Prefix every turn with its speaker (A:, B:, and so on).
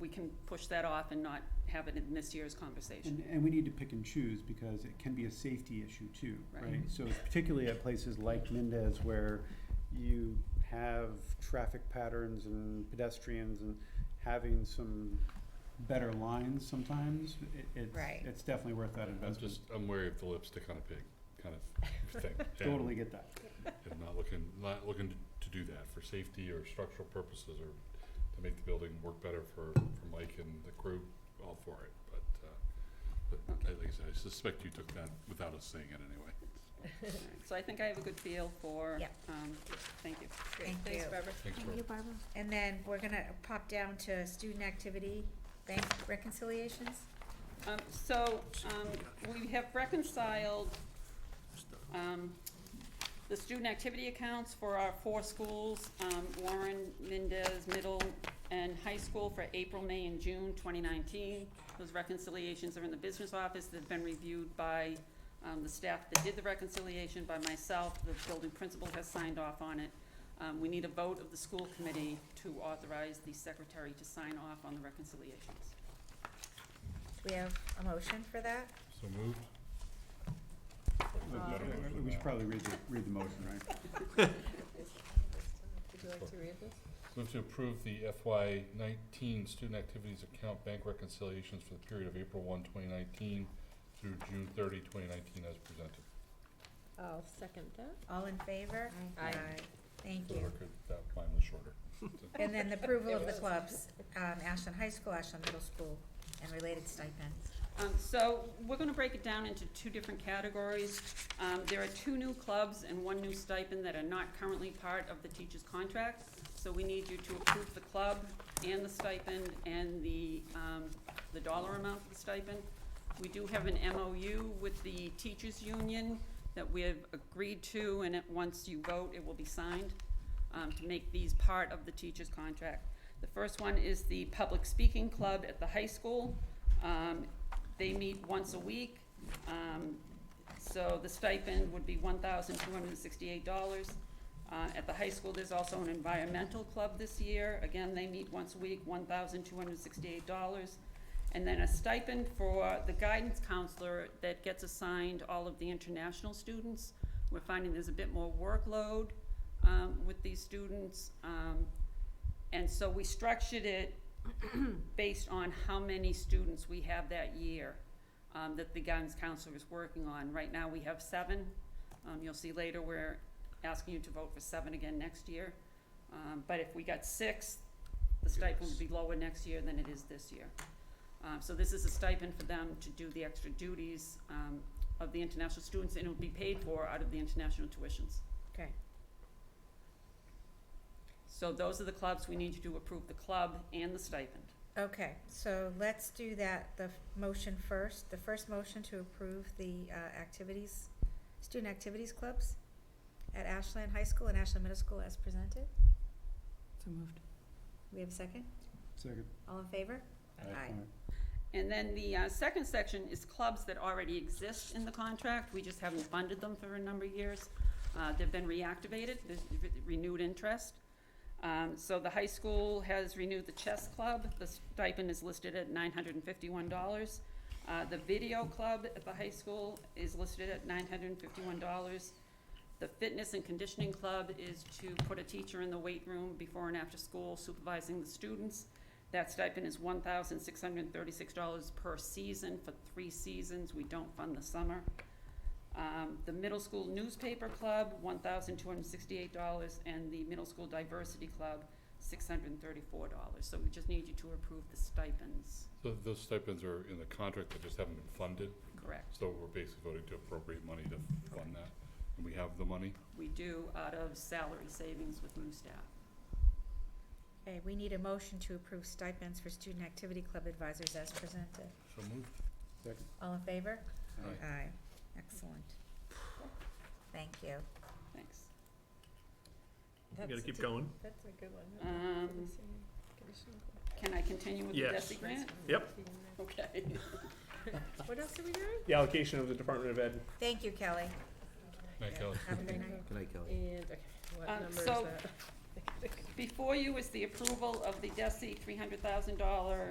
A: we can push that off and not have it in this year's conversation.
B: And, and we need to pick and choose because it can be a safety issue too,
A: Right.
B: right? So particularly at places like Mendez where you have traffic patterns and pedestrians and having some better lines sometimes, it, it's,
C: Right.
B: it's definitely worth that
D: I'm
B: investment.
D: just, I'm wary of the lipstick on a pig kind of thing. and-
B: Totally get that.
D: And not looking, not looking to do that for safety or structural purposes or to make the building work better for, for Mike and the crew, all for it, but, uh, but I- like I said, I suspect you took that without us saying it anyway.
A: Alright, So I think I have a good feel for,
C: Yeah.
A: um, thank you.
C: Great, Thank thanks, you.
A: Barbara.
D: Thanks,
E: Thank you,
D: Barb.
E: Barbara.
C: And then we're gonna pop down to student activity, bank reconciliations.
A: Um, so, um, we have reconciled, um, the student activity accounts for our four schools, um, Warren, Mendez, Middle, and High School for April, May, and June twenty nineteen. Those reconciliations are in the business office, they've been reviewed by, um, the staff that did the reconciliation, by myself, the building principal has signed off on it. Um, we need a vote of the school committee to authorize the secretary to sign off on the reconciliations.
C: We have a motion for that?
D: So moved?
E: Uh,
B: We- we- We should probably read the, read the motion, right?
C: Would you like to read this?
D: Move to approve the FY nineteen student activities account bank reconciliations for the period of April 1, 2019, through June 30, 2019, as presented.
F: I'll second that.
C: All in favor?
F: Aye. Aye.
C: Thank
D: For the
C: you.
D: record, that mine was shorter.
C: And then the approval of
F: It
C: the
F: was.
C: clubs, um, Ashland High School, Ashland Middle School, and related stipends.
A: Um, so we're gonna break it down into two different categories. Um, there are two new clubs and one new stipend that are not currently part of the teacher's contract. So we need you to approve the club and the stipend and the, um, the dollar amount of the stipend. We do have an MOU with the teachers' union that we have agreed to, and it, once you vote, it will be signed, um, to make these part of the teacher's contract. The first one is the public speaking club at the high school. Um, they meet once a week, um, so the stipend would be one thousand two hundred and sixty-eight dollars. Uh, at the high school, there's also an environmental club this year, again, they meet once a week, one thousand two hundred and sixty-eight dollars. And then a stipend for the guidance counselor that gets assigned all of the international students. We're finding there's a bit more workload, um, with these students, um, and so we structured it based on how many students we have that year um, that the guidance counselor is working on. Right now, we have seven. Um, You'll see later, we're asking you to vote for seven again next year. Um, But if we got six, the stipend would be lower next year than it is this year. Um, So this is a stipend for them to do the extra duties um, of the international students, and it would be paid for out of the international tuitions.
C: Okay.
A: So those are the clubs. We need you to approve the club and the stipend.
C: Okay, so let's do that, the f- motion first, the first motion to approve the, uh, activities, student activities clubs at Ashland High School and Ashland Middle School as presented.
F: So moved.
C: We have a second?
B: Second.
C: All in favor? Aye.
A: And then the uh, second section is clubs that already exist in the contract, we just haven't funded them for a number of years. Uh, They've been reactivated, there's renewed interest. Um, So the high school has renewed the chess club, the stipend is listed at nine hundred and fifty-one dollars. Uh, The video club at the high school is listed at nine hundred and fifty-one dollars. The fitness and conditioning club is to put a teacher in the weight room before and after school supervising the students. That stipend is one thousand six hundred and thirty-six dollars per season for three seasons, we don't fund the summer. Um, the middle school newspaper club, one thousand two hundred and sixty-eight dollars, and the middle school diversity club, six hundred and thirty-four dollars, so we just need you to approve the stipends,
D: So those stipends are in the contract, they just haven't been funded.
A: correct?
D: So we're basically voting to appropriate money to fund that, and we have the money.
A: We do out of salary savings with new staff.
C: Okay, we need a motion to approve stipends for student activity club advisors as presented.
D: So moved.
B: Second.
C: All in favor?
D: Aye.
C: Aye. Excellent. Thank you.
A: Thanks.
F: That's
G: gotta keep
F: a-
G: going.
F: That's a good one.
A: Um, Can I continue with the
G: Yes.
A: DESI grant?
G: Yep.
A: Okay.
F: What else are we doing?
G: The allocation of the Department of Ed
C: Thank you, Kelly.
D: Thank you.
C: Have a good night.
E: Good night, Kelly.
F: And, okay, what
A: Um,
F: number is
A: so-
F: that?
A: Before you is the approval of the DESI three hundred thousand dollar